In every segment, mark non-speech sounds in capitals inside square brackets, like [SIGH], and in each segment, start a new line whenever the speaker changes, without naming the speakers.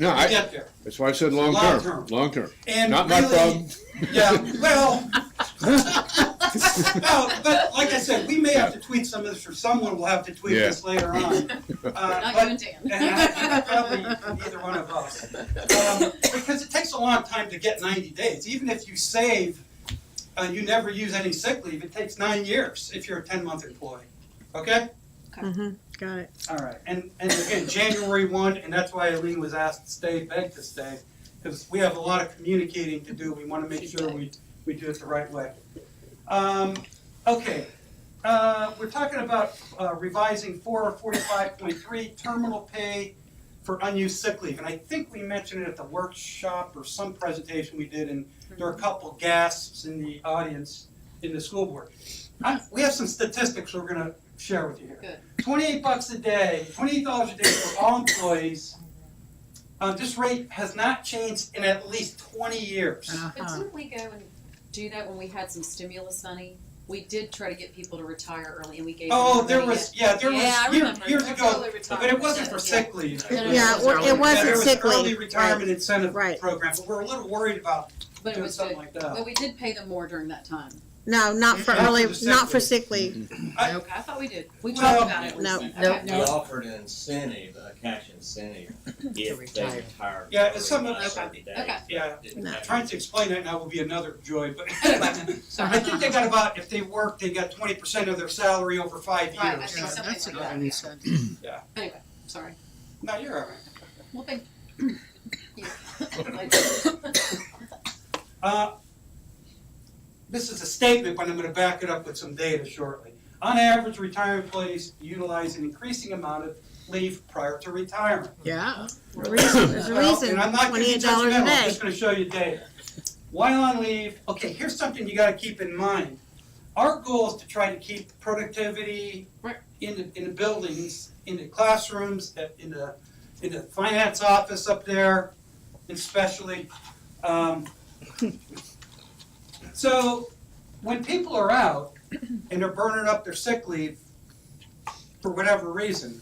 No,
to
I,
get there.
that's why I said long term,
Long-term.
long term.
And
Not my
really-
problem.
Yeah, well, [LAUGHS]
[LAUGHS]
no, but like I said, we may have to tweet some of this, or someone will have to tweet
Yeah.
this later
[LAUGHS]
on. Uh, but-
Not you and
And I think
Dan.
it [LAUGHS] probably from either one of us. Um, Because it takes a long time to get ninety days, even if you save, uh, you never use any sick leave, it takes nine years if you're a ten-month employee, okay?
Got it.
All right, and, and again, January one, and that's why Eileen was asked to stay, begged to stay, because we have a lot of communicating to do, we wanna make sure we, we do it the right way. Um, okay, uh, we're talking about uh, revising four forty-five point three, terminal pay for unused sick leave, and I think we mentioned it at the workshop or some presentation we did, and there are a couple gasps in the audience in the school board. I, we have some statistics we're gonna share with you here twenty-eight bucks a day, twenty-eight dollars a day for all employees. Uh, this rate has not changed in at least twenty years.
Uh,
Uh-huh.
But didn't we go and do that when we had some stimulus money? We did try to get people to retire early and we gave them
Oh,
the
there
money
was, yeah, there was,
Yeah, I
year-
remember.
years
That's
ago,
early retirement,
but it wasn't for
yeah.
sick leave.
No, no,
Yeah,
it was
well, it
early
wasn't
There
retirement.
was an
sick
Early
leave. right.
retirement incentive
Right.
program, but we're a little worried about
But it
doing
was good,
something like
but
that.
we did pay them more during that time.
No, not for
Not for
early,
the sick
not for
leave.
sick leave.
I-
Okay, I thought we did. We
Well,
talked about it.
no.
Okay.
We offered an incentive, a cash
[LAUGHS]
incentive, if they
retire.
retired.
Yeah, it's some of-
early, thirty days.
Okay.
Yeah,
Didn't
No.
have-
trying to explain that now will be another joy, but
[LAUGHS]
[LAUGHS] I think they got about, if they work, they got twenty percent of their salary over five years.
Right, I think
Yeah,
something
that's
like
another
that, yeah.
incentive.
Anyway, sorry.
No, you're all right.
Well, [COUGHS] thank
[COUGHS]
you.
Uh, This is a statement, but I'm gonna back it up with some data shortly. On average, retired employees utilize an increasing amount of leave prior to retirement.
Yeah.
[COUGHS]
Reason, there's a
Well,
reason,
And I'm not gonna be
twenty-eight dollars
judgmental,
a
I'm
day.
just gonna show you data. While on leave, okay, here's something you gotta keep in mind. Our goal is to try to keep productivity
Right.
in the, in the buildings, in the classrooms, at- in the, in the finance office up there, especially.
[LAUGHS]
Um, So, when people are out and they're burning up their sick leave for whatever reason,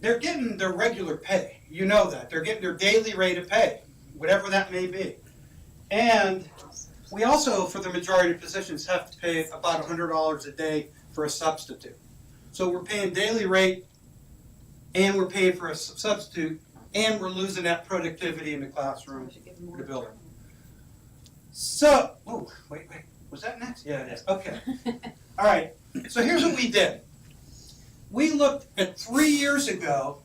they're getting their regular pay. You know that. They're getting their daily rate of pay, whatever that may be. And we also, for the majority of positions, have to pay about hundred dollars a day for a substitute. So we're paying daily rate and we're paying for a sub- substitute and we're losing that productivity in the classroom. The building. So, oh, wait, wait, was that next? Yeah, it is, okay. All right, so here's what we did. We looked at three years ago,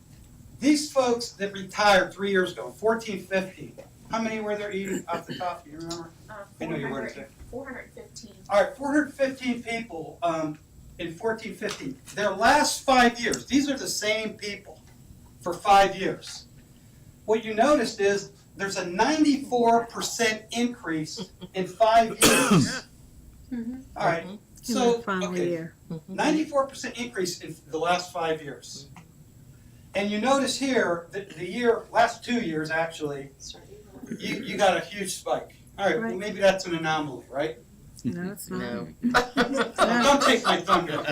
these folks that retired three years ago, fourteen, fifteen, how many were there even off the top, do you remember? I know you weren't there.
Four hundred fifteen.
All right, four hundred fifteen people, um, in fourteen, fifteen, their last five years, these are the same people for five years. What you noticed is there's a ninety-four percent increase in five years.
Mhm.
All right,
Mm-hmm. In the
so,
Final
okay,
year. Mm-hmm.
ninety-four percent increase in the last five years. And you notice here, that the year, last two years actually, you, you got a huge spike. All right, well,
Right.
maybe that's an anomaly, right? Mm-hmm.
No, it's not.
No.
Don't take my thunder.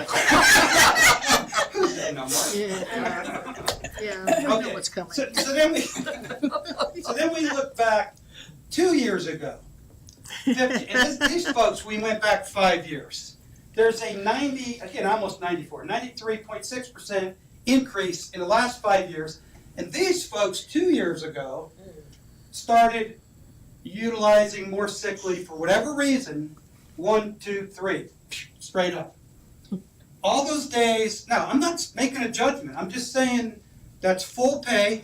Who's that number?
Yeah,
[LAUGHS]
yeah, I know
Okay.
what's coming.
So, [LAUGHS] so then we, so then we look back two years ago. 50, [LAUGHS] and
[LAUGHS]
this, these folks, we went back five years. There's a 90, again, almost 94, 93.6% increase in the last five years. And these folks, two years ago, started utilizing more sick leave for whatever reason. One, two, three, straight up. All those days, now, I'm not making a judgment. I'm just saying that's full pay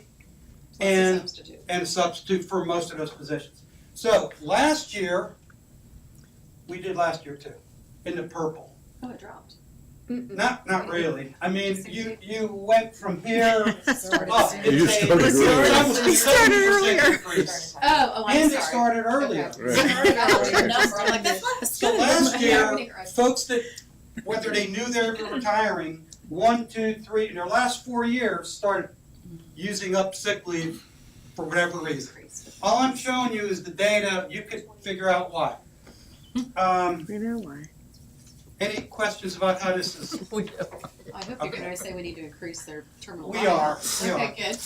and
Substitute.
and a substitute for most of those positions. So last year, we did last year too, in the purple.
Oh, it dropped.
Not, not really. I mean, you, you went from here up.
You
just
It's a-
started
it's
earlier.
almost a
We started
70% [COUGHS]
earlier.
increase.
Oh, oh, I'm
And it
sorry.
started earlier.
Okay.
Right.
Sorry about the
Right.
number. I'm like, that's less.
So
Good.
last
Yeah,
year-
we didn't grow.
Folks that, whether they knew they were retiring, one, two, three, in their last four years, started using up sick leave for whatever reason.
Increased.
All I'm showing you is the data, you could figure out why. Um,
We know why.
any questions about how this is,
I hope you're
Okay.
gonna say we need to increase their terminal.
we
volume.
are, we are.
Okay, good.